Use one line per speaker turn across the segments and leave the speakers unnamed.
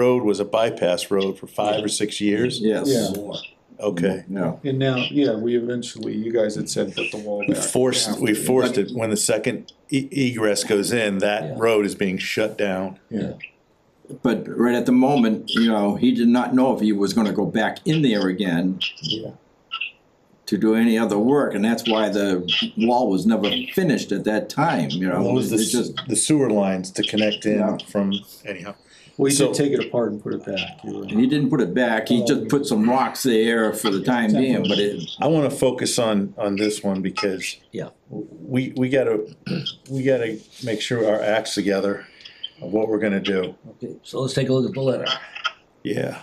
road was a bypass road for five or six years?
Yeah.
Yes,
Okay.
no,
And now, yeah, we eventually, you guys had said put the wall
We
back.
forced, we forced it, when the second e- egress goes in,
Yeah.
that road is being shut down.
Yeah,
but right at the moment, you know, he did not know if he was gonna go back in there again
yeah,
to do any other work, and that's why the wall was never finished at that time, you know?
What was the,
It's
s-
just-
the sewer lines to connect
Yeah.
in from, anyhow.
we did
So-
take it apart and put it back. You're right.
He didn't put it back, he just put some rocks there for the time being, but it,
I wanna focus on, on this one because.
Yeah.
We, we gotta, we gotta make sure our acts together of what we're gonna do.
okay, so let's take a look at the letter.
Yeah.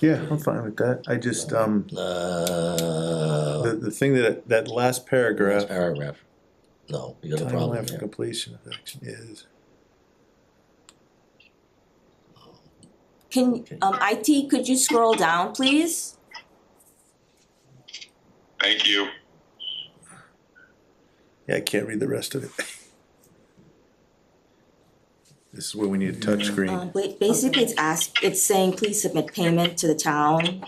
Yeah, I'm fine with that. I just, um,
Uh,
the, the thing that, that last paragraph.
paragraph. No, you got a
Timeline
problem
for
here.
completion of action is.
Can, um, IT, could you scroll down, please?
Thank you.
Yeah, I can't read the rest of it. This is where we need a
Um,
touchscreen.
ba- basically, it's ask, it's saying, please submit payment to the town.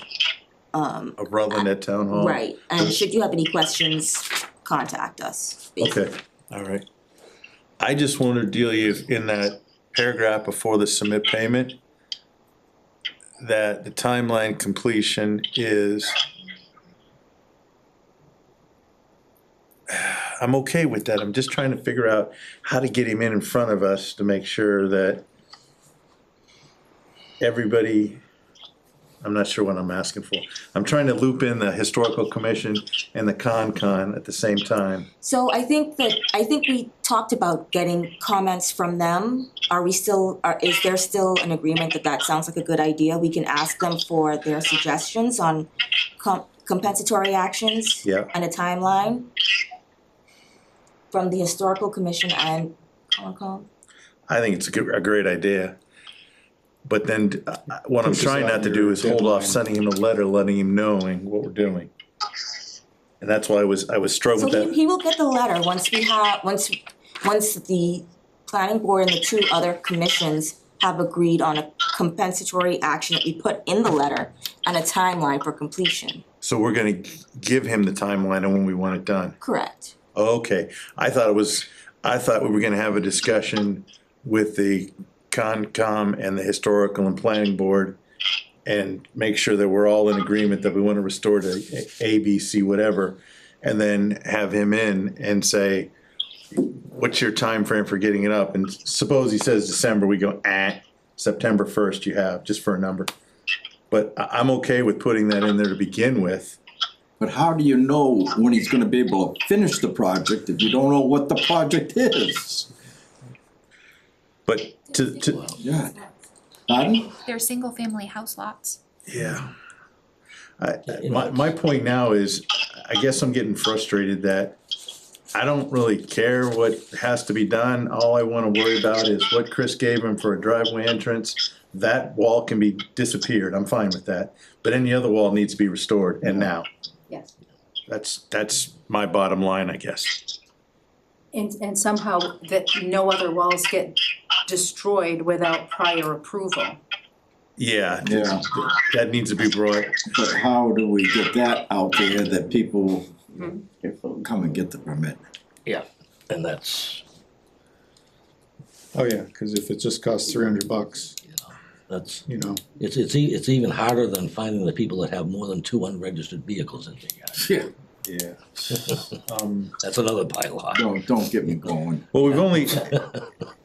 Um,
Of Rutland at Town Hall.
right, and
this-
should you have any questions, contact us. basically.
Okay, all right. I just want to deal you in that paragraph before the submit payment. That the timeline completion is. I'm okay with that. I'm just trying to figure out how to get him in in front of us to make sure that. Everybody, I'm not sure what I'm asking for. I'm trying to loop in the historical commission and the con con at the same time.
So I think that, I think we talked about getting comments from them. Are we still, are, is there still an agreement that that sounds like a good idea? We can ask them for their suggestions on com- compensatory actions?
Yeah.
and a timeline from the historical commission and Concom.
I think it's a good, a great idea. But then, uh, uh, what I'm
Pushes
trying
out
not to
your
do is hold off
deadline.
sending him a letter, letting him knowing what we're doing. And that's why I was, I was
So
struggling
he,
with that.
he will get the letter once we have, once, once the planning board and the two other commissions have agreed on a compensatory action that we put in the letter and a timeline for completion.
So we're gonna give him the timeline and when we want it done.
Correct.
Okay, I thought it was, I thought we were gonna have a discussion with the Concom and the Historical and Planning Board and make sure that we're all in agreement that we wanna restore to A- A, B, C, whatever, and then have him in and say, what's your time frame for getting it up? And suppose he says December, we go, ah, September first you have, just for a number. But I, I'm okay with putting that in there to begin with.
but how do you know when he's gonna be able to finish the project if you don't know what the project is?
But to, to,
Yeah, pardon?
They're single-family house lots.
Yeah. I, I- my, my point now is, I guess I'm getting frustrated that I don't really care what has to be done. All I wanna worry about is what Chris gave him for a driveway entrance. That wall can be disappeared, I'm fine with that, but any other wall needs to be restored, and now.
Yes.
That's, that's my bottom line, I guess.
And, and somehow that no other walls get destroyed without prior approval.
Yeah,
Yeah.
that needs to be brought,
But how do we get that out there that people
Mhm.
come and get the permit?
Yeah, and that's,
Oh, yeah, cause if it just costs three hundred bucks,
that's,
you know,
it's, it's, e- it's even harder than finding the people that have more than two unregistered vehicles in their yard.
Yeah.
yeah. Um,
That's another bylaw.
Don't, don't get me going.
Well, we've only,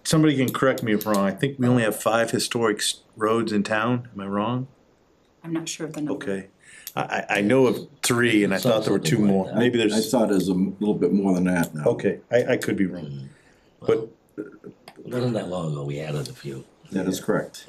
somebody can correct me if wrong, I think we only have five historic s- roads in town, am I wrong?
I'm not sure of the number.
Okay, I, I, I know of three and I thought there were two
Something like
more,
that.
maybe
I
there's,
thought it was a m- little bit more than that now.
okay, I, I could be
Mm.
wrong. But
It wasn't that long ago we added a few.
That is correct.